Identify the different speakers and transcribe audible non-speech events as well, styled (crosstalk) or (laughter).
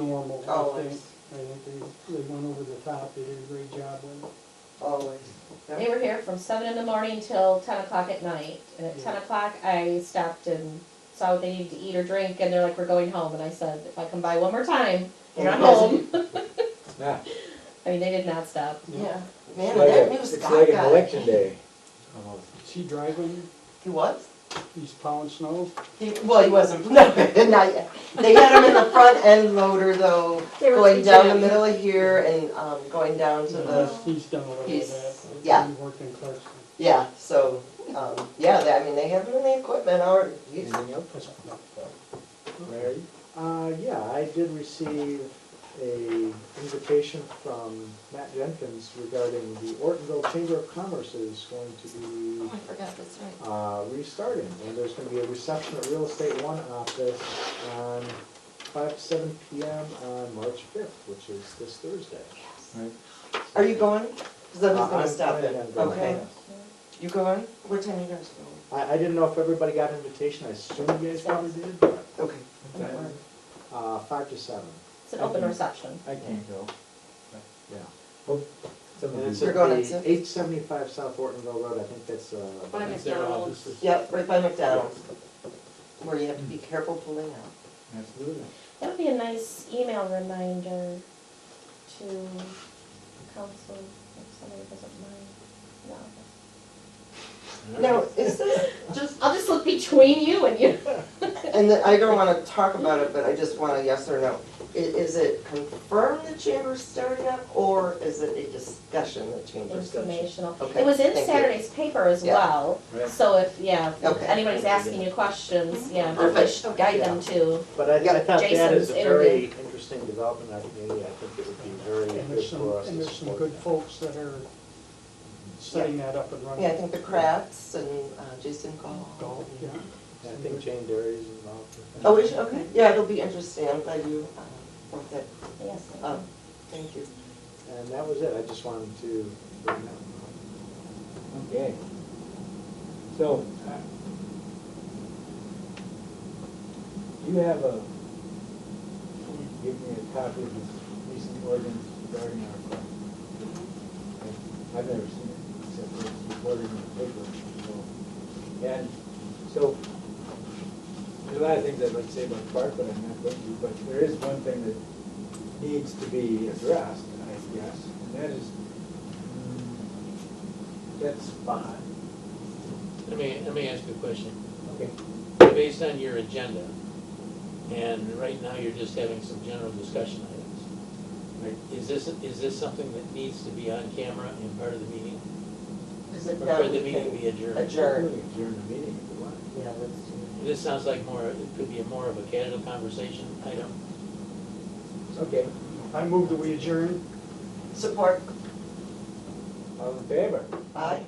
Speaker 1: I
Speaker 2: Always.
Speaker 1: think, I think they, they went over the top, they did a great job with it.
Speaker 2: always.
Speaker 3: They were here from seven in the morning till ten o'clock at night, and at ten
Speaker 1: Yeah.
Speaker 3: o'clock, I stopped and saw what they needed to eat or drink, and they're like, we're going home, and I said, if I come by one more time, you're not home.
Speaker 4: Yeah.
Speaker 3: I mean, they did not stop.
Speaker 2: Yeah, man,
Speaker 4: It's
Speaker 2: and
Speaker 4: like
Speaker 2: that
Speaker 4: a-
Speaker 2: news
Speaker 4: it's
Speaker 2: guy
Speaker 4: like an
Speaker 2: got
Speaker 4: election
Speaker 2: it.
Speaker 4: day. almost.
Speaker 1: Is he driving,
Speaker 2: He was?
Speaker 1: he's plowing snow?
Speaker 2: He, well, he wasn't, (laughs) no, not yet. They had him in the front end loader though,
Speaker 5: They were
Speaker 2: going down the
Speaker 5: teaching him.
Speaker 2: middle of here and, um, going down to the,
Speaker 1: He's- He's done a little
Speaker 2: He's-
Speaker 1: of that.
Speaker 2: yeah.
Speaker 1: He worked in Clarkston.
Speaker 2: yeah, so, um, yeah, they- I mean, they have him in the equipment or, he's,
Speaker 4: Anything else? Mary?
Speaker 6: Uh, yeah, I did receive a invitation from Matt Jenkins regarding the Ortonville Chamber of Commerce is going to be
Speaker 7: Oh, I forgot, that's right.
Speaker 6: uh, restarting, and there's gonna be a reception at Real Estate One office on five to seven P M on March fifth, which is this Thursday.
Speaker 2: are you going? Cause I was
Speaker 6: Uh,
Speaker 2: gonna
Speaker 6: I'm
Speaker 2: stop it.
Speaker 6: planning on going,
Speaker 2: Okay,
Speaker 6: yes.
Speaker 2: you going? What time are you guys going?
Speaker 6: I, I didn't know if everybody got an invitation, I assume you guys probably did, but,
Speaker 2: Okay.
Speaker 6: uh, five to seven,
Speaker 3: It's an open reception.
Speaker 4: I can't go.
Speaker 6: yeah.
Speaker 2: Oh,
Speaker 4: Some
Speaker 6: And
Speaker 4: of
Speaker 6: it's
Speaker 4: these,
Speaker 2: We're
Speaker 6: at
Speaker 2: going on
Speaker 6: the
Speaker 2: to-
Speaker 6: eight seventy-five South Ortonville Road, I think that's, uh.
Speaker 5: By
Speaker 1: It's their
Speaker 5: McDonald's.
Speaker 1: offices.
Speaker 2: Yep, right by McDonald's, where you have to be careful pulling out.
Speaker 4: absolutely.
Speaker 3: That would be a nice email reminder to council, if somebody doesn't mind. No.
Speaker 2: Now, is (laughs) this just,
Speaker 3: I'll just look between you and you.
Speaker 2: and then I don't wanna talk about it, but I just want a yes or no. I- is it confirmed the chamber's starting up, or is it a discussion the chamber's starting?
Speaker 3: Informational.
Speaker 2: Okay,
Speaker 3: It was in
Speaker 2: thank you.
Speaker 3: Saturday's paper as
Speaker 2: Yeah.
Speaker 3: well,
Speaker 4: Right.
Speaker 3: so if, yeah, if
Speaker 2: Okay.
Speaker 3: anybody's asking you questions, yeah,
Speaker 2: Perfect.
Speaker 3: guide them to.
Speaker 6: But I, I thought that is
Speaker 3: Jason's
Speaker 6: a very
Speaker 3: interview.
Speaker 6: interesting development in our community, I think it would be very
Speaker 1: And
Speaker 6: good
Speaker 1: there's some,
Speaker 6: for us
Speaker 1: and
Speaker 6: to
Speaker 1: there's some
Speaker 6: support
Speaker 1: good
Speaker 6: that.
Speaker 1: folks that are setting that up and running.
Speaker 2: Yeah, I think the Kratz and uh, Jason Gall.
Speaker 1: Golf, yeah.
Speaker 6: And I think Jane Derry is involved. with that.
Speaker 2: Oh, is, okay, Oh, yeah, it'll be interesting, I'm glad you, uh, brought that
Speaker 3: Yes.
Speaker 2: up, thank you.
Speaker 6: And that was it, I just wanted to bring that up.
Speaker 4: Okay. So, uh, you have a, can you give me a copy of this recent ordinance regarding our club? I- I've never seen it, except for it's reported in the paper, so. And, so, there's a lot of things I'd like to say about the park, but I'm not going to, but there is one thing that needs to be addressed, I guess, and that is mm, that spot.
Speaker 8: Let me, let me ask you a question.
Speaker 4: Okay.
Speaker 8: Based on your agenda, and right now you're just having some general discussion items.
Speaker 4: Right.
Speaker 8: Is this, is this something that needs to be on camera and part of the meeting?
Speaker 2: Is it
Speaker 8: Or
Speaker 2: now
Speaker 8: could
Speaker 2: we
Speaker 8: the meeting
Speaker 2: can
Speaker 8: be adjourned?
Speaker 2: adjourn?
Speaker 4: During the meeting, if you want.
Speaker 2: Yeah, let's do
Speaker 8: This sounds like more, it could be more of a casual conversation item.
Speaker 4: Okay,
Speaker 1: I move that we adjourn.
Speaker 2: that. Support,
Speaker 4: all in favor?
Speaker 2: aye.